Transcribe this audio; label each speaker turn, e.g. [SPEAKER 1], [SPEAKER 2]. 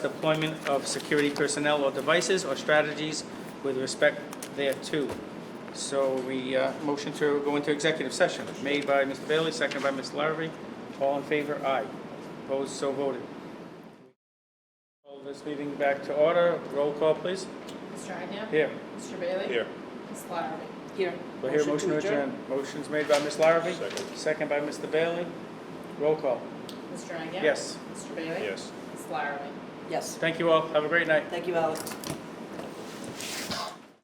[SPEAKER 1] deployment of security personnel or devices or strategies with respect thereto. So we, uh, motion to go into executive session, made by Mr. Bailey, seconded by Ms. Larrabee. All in favor, aye. Opposed, so voted. Call this meeting back to order. Roll call, please.
[SPEAKER 2] Mr. Agia?
[SPEAKER 1] Here.
[SPEAKER 2] Mr. Bailey?
[SPEAKER 3] Here.
[SPEAKER 2] Ms. Lottery?
[SPEAKER 4] Here.
[SPEAKER 1] Do I hear a motion to adjourn? Motion's made by Ms. Larrabee.
[SPEAKER 3] Second.
[SPEAKER 1] by Mr. Bailey. Roll call.
[SPEAKER 2] Mr. Agia?
[SPEAKER 1] Yes.
[SPEAKER 2] Mr. Bailey?
[SPEAKER 3] Yes.
[SPEAKER 2] Ms. Lottery?
[SPEAKER 4] Yes.
[SPEAKER 1] Thank you all. Have a great night.
[SPEAKER 4] Thank you, Alex.